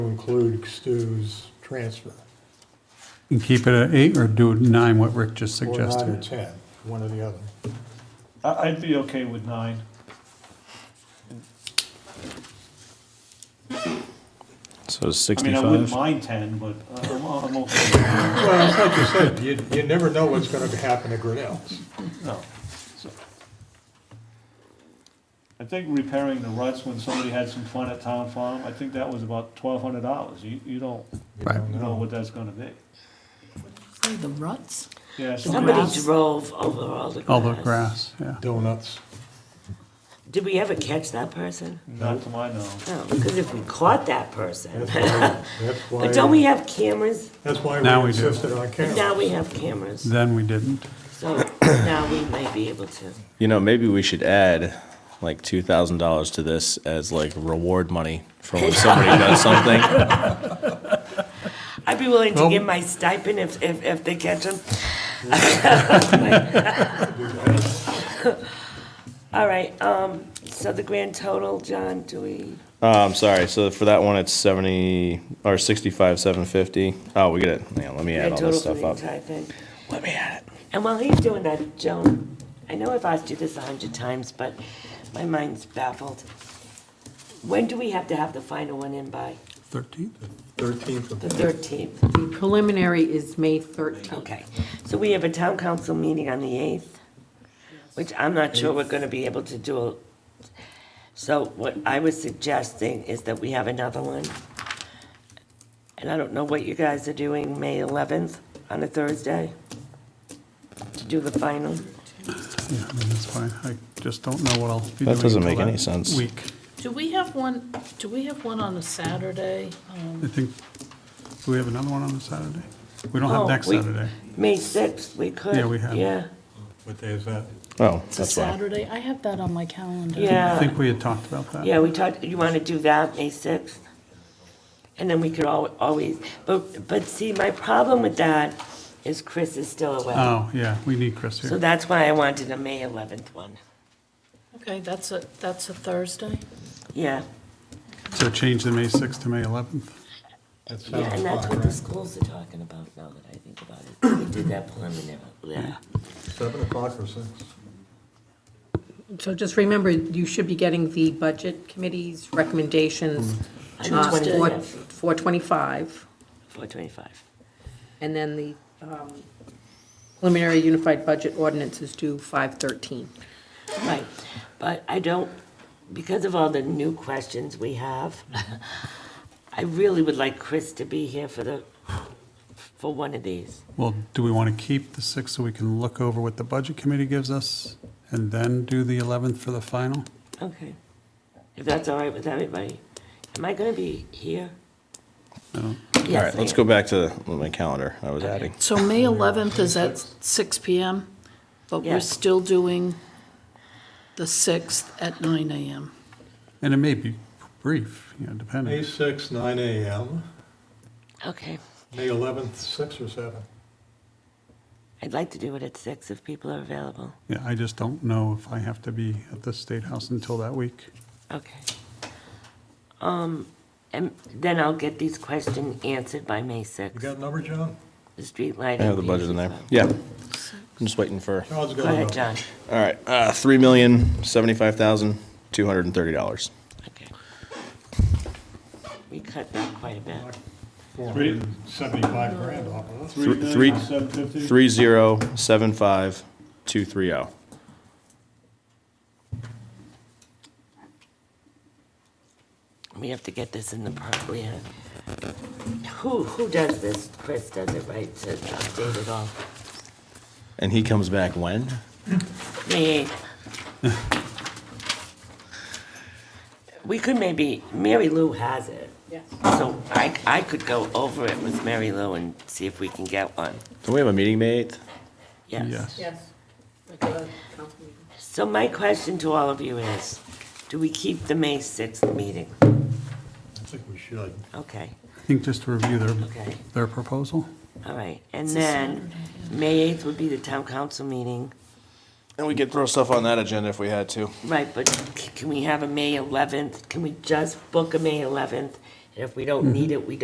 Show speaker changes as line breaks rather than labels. to include Stu's transfer,
And keep it at eight or do nine, what Rick just
or nine or
suggested?
10, one or the other.
I- I'd be okay with nine. I
So
mean, I wouldn't
65.
mind ten, but I'm, I'm okay with nine.
Well, it's like you said, you, you never know what's gonna happen to Grinnell's.
No. So- I think repairing the ruts when somebody had some fun at Town Farm, I think that was about twelve hundred dollars. You, you don't
Right.
know what that's gonna be.
Say The ruts?
Yeah, somebody,
Somebody
Grass.
drove over all the grass.
All the grass, yeah.
Donuts.
Did we ever catch that person?
not to my knowledge.
No, because if we caught that person,
That's why, that's why.
but don't we have cameras?
That's why
Now
we
we do.
insisted on
But now
cameras.
we have cameras,
Then we didn't.
so now we may be able to.
You know, maybe we should add like $2,000 to this as like reward money for when somebody does something.
I'd be willing to
Well-
give my stipend if, if, if they catch them. All right, um, so the grand total, John, do we,
Um, sorry. So for that one, it's 70 or 65, 750. Oh, we get it. Hang on, let me add
grand
all
total
this
for
stuff
the
up.
entire thing?
Let me add it.
And while he's doing that, Joan, I know I've asked you this a hundred times, but my mind's baffled. When do we have to have the final one in by?
Thirteenth?
Thirteenth of
The thirteenth?
The preliminary is May 13th.
Okay, so we have a town council meeting on the eighth, which I'm not sure we're gonna be able to do. So what I was suggesting is that we have another one. And I don't know what you guys are doing, May eleventh on a Thursday to do the final.
Yeah, I mean, that's fine. I just don't know what I'll be doing.
That doesn't make
till
any
that
sense.
Week.
Do we have one, do we have one on a Saturday? Um,
I think, do we have another one on the Saturday? We don't
Oh,
have next
we-
Saturday.
May sixth, we could.
Yeah, we have.
Yeah,
What day is that?
Oh,
It's a
that's why.
Saturday, I have that on my calendar.
I
yeah,
think we had talked about that.
yeah, we talked, you wanna do that, May sixth? And then we could al- always, but, but see, my problem with that is Chris is still away.
Oh, yeah, we need Chris
So
here.
that's why I wanted a May eleventh one.
Okay, that's a, that's a Thursday?
Yeah,
So change the May sixth to May eleventh.
That sounds
yeah, and that's
fine,
what the
right?
schools are talking about now that I think about it. We did that preliminary, yeah.
Seven o'clock or six?
So just remember, you should be getting the budget committee's recommendations uh,
Tuesday.
for 425,
Four twenty-five.
and then the um, preliminary unified budget ordinance is due 513.
Right, but I don't, because of all the new questions we have, I really would like Chris to be here for the, for one of these.
Well, do we want to keep the sixth so we can look over what the budget committee gives us and then do the eleventh for the final?
Okay. If that's all right with everybody. Am I gonna be here?
All right, let's go back to my calendar I was adding.
So May 11th is at six PM, but
Yeah.
we're still doing the 6th at nine AM.
And it may be brief, you know,
May
depending.
sixth, nine AM,
Okay.
May eleventh, six or seven?
I'd like to do it at six if people are available.
Yeah, I just don't know if I have to be at the State House until that week.
Okay. Um, and then I'll get these questions answered by May
You
sixth.
got a number, John?
The street lighting.
I have the budget in there. Yeah. I'm just waiting for.
John's
Go
got a
ahead,
number.
John.
All right, uh, three million seventy-five thousand two hundred and thirty dollars.
Okay. We cut that quite a bit.
Four hundred and seventy-five grand off of us.
Three
three-
million, seven fifty?
Three zero seven five two three zero.
We have to get this in the park, we have. Who, who does this? Chris does it, right, to update it all?
And he comes back when?
Me. We could maybe, Mary Lou has it.
Yes.
So I, I could go over it with Mary Lou and see if we can get one.
Don't we have a meeting May eighth?
Yes.
Yes.
Yes.
So my question to all of you is, do we keep the May 6th meeting?
I think we should.
Okay,
I think just to review their,
Okay.
their proposal.
all right. And then, May 8th would be the town council meeting.
And we could throw stuff on that agenda if we had to.
Right, but c- can we have a May 11th? Can we just book a May 11th And if we don't need it, we don't.